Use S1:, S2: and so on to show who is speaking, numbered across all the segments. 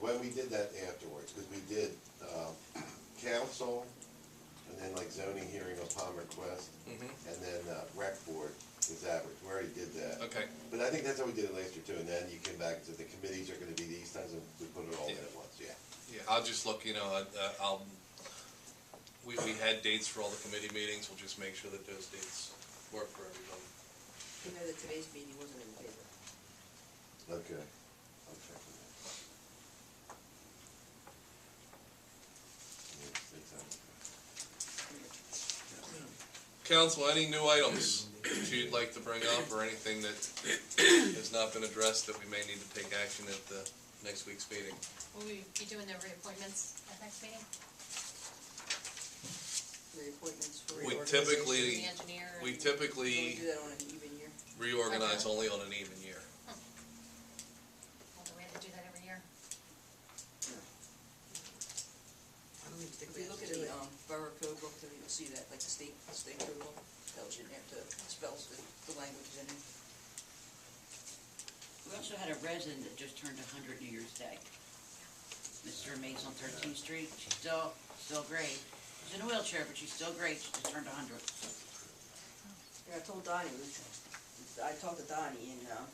S1: why we did that afterwards, because we did, um, council, and then like zoning hearing upon request,
S2: Mm-hmm,
S1: and then uh, rec board is average, we already did that.
S2: okay,
S1: But I think that's how we did it last year too, and then you came back and said the committees are gonna be these times, and we put it all in at once, yeah.
S2: yeah, I'll just look, you know, I- uh, I'll, we, we had dates for all the committee meetings, we'll just make sure that those dates work for everybody.
S3: You know that today's meeting wasn't in the paper.
S1: Okay. I'm checking that. Yeah, it's- it's on.
S2: Council, any new items that you'd like to bring up, or anything that has not been addressed that we may need to take action at the next week's meeting?
S4: Will we be doing the reappointments at next meeting?
S3: The appointments for
S2: We
S3: reorganization.
S2: typically-
S4: The engineer?
S2: We
S4: and-
S3: Can we
S2: typically
S3: do that on an even year?
S2: reorganize only on an even year.
S4: Well, do we have to do that every year?
S3: If you look at the, um, borough code book, then you'll see that, like the state, state code book tells you that the spells, the, the language is in it.
S5: We also had a resident that just turned hundred New Year's Day. Mr. Mays on Thirteenth Street, she's still, still great. She's in a wheelchair, but she's still great, she just turned hundred.
S3: Yeah, I told Donnie, we should- I talked to Donnie and, um,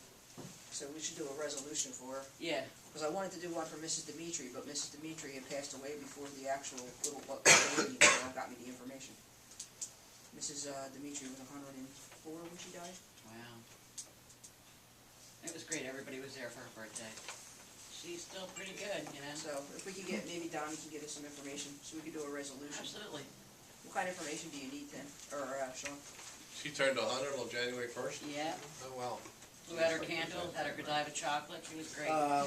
S3: so we should do a resolution for her.
S5: Yeah,
S3: Because I wanted to do one for Mrs. Dimitri, but Mrs. Dimitri had passed away before the actual little, what, lady that got me the information. Mrs. uh, Dimitri was hundred and four when she died.
S5: wow. It was great, everybody was there for her birthday. She's still pretty good, you know?
S3: So if we could get, maybe Donnie can get us some information, so we could do a resolution.
S5: Absolutely.
S3: What kind of information do you need then, or, uh, Sean?
S2: She turned hundred on January first?
S5: Yeah,
S2: Oh, wow.
S5: blew out her candles, had her Godiva chocolate, she was great.
S1: Um.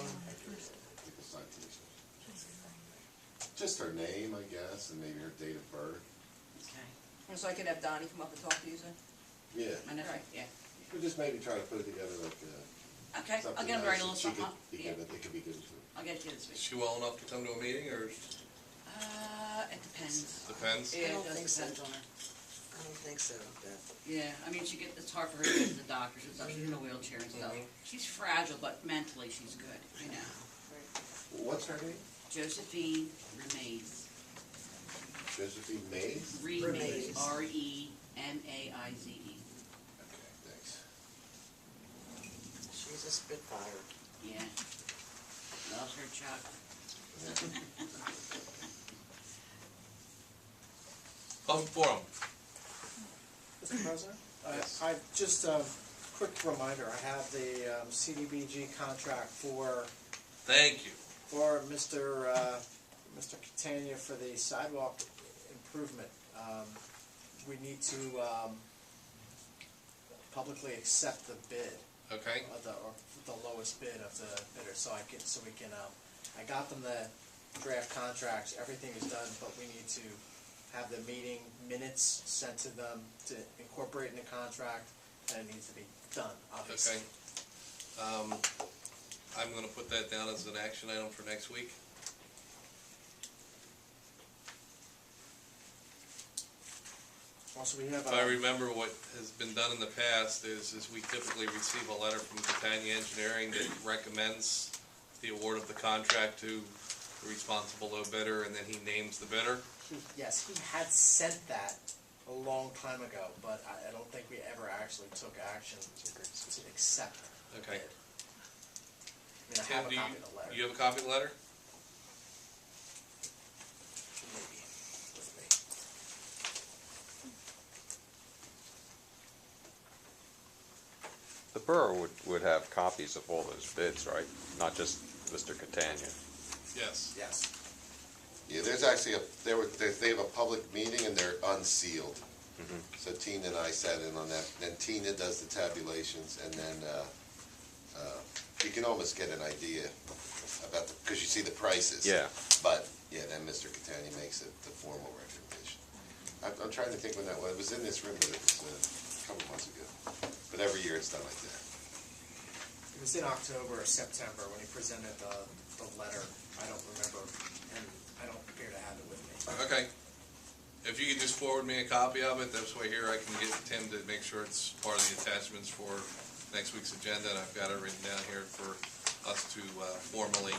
S1: Just her name, I guess, and maybe her date of birth.
S5: Okay,
S3: And So I could have Donnie come up and talk to you then?
S1: Yeah,
S5: I know,
S3: Right.
S5: yeah.
S1: we just maybe try to put it together like, uh,
S5: Okay, I'll
S1: something
S5: get him to write
S1: nice
S5: a little
S1: that she
S5: something,
S1: could
S5: up.
S1: be
S5: yeah,
S1: given, it could be given to her.
S5: I'll get it to you this
S2: Is
S5: week.
S2: she well enough to come to a meeting, or
S5: Uh, it depends.
S2: depends?
S5: Yeah,
S6: don't
S5: it does
S6: think so.
S5: depend on her.
S6: I don't think so, but
S5: Yeah, I mean, she get, it's hard for her to get to the doctors and stuff, she's in a wheelchair and stuff.
S2: Mhm.
S5: She's fragile, but mentally she's good, you know.
S1: What's her name?
S5: Josephine Remains,
S1: Josephine Mays?
S5: Remains,
S6: Remaze.
S5: E R-E-M-A-I-Z-E.
S1: Okay, thanks.
S6: she's a spitfire.
S5: Yeah. Loves her chocolate.
S2: Public forum.
S7: Mr. President? I I- just a quick reminder, I have the um, CDBG contract for,
S2: Thank you.
S7: for Mr. uh, Mr. Catania for the sidewalk improvement. Um, We need to um, publicly accept the bid,
S2: Okay,
S7: or the, or the lowest bid of the bidder, so I can, so we can, um, I got them the draft contracts, everything is done, but we need to have the meeting minutes sent to them to incorporate in the contract, and it needs to be done,
S2: okay.
S7: obviously.
S2: Um, I'm gonna put that down as an action item for next week.
S7: Also, we have,
S2: If I
S7: um,
S2: remember what has been done in the past is, is we typically receive a letter from Catania Engineering that recommends the award of the contract to the responsible low bidder, and then he names the bidder.
S7: he- yes, he had sent that a long time ago, but I, I don't think we ever actually took action to accept the
S2: Okay.
S7: bid. I mean, I
S2: Tim,
S7: have
S2: do
S7: a
S2: you-
S7: copy of the letter.
S2: You have a copy of the letter?
S7: Maybe. With me.
S8: The borough would, would have copies of all those bids, right? Not just Mr. Catania.
S2: Yes.
S7: Yes.
S1: Yeah, there's actually a, there were, they they have a public meeting and they're unsealed. So Tina and I sat in on that, then Tina does the tabulations and then, uh, uh, you can almost get an idea about the, because you see the prices.
S8: Yeah.
S1: But, yeah, then Mr. Catania makes it the formal recommendation. I'm, I'm trying to think when that was, it was in this room, but it was uh, a couple months ago. But every year it's done like that.
S7: It was in October or September when he presented the, the letter. I don't remember, and I don't appear to have it with me.
S2: Okay. If you could just forward me a copy of it, that's way here I can get Tim to make sure it's part of the attachments for next week's agenda, and I've got it written down here for us to uh, formally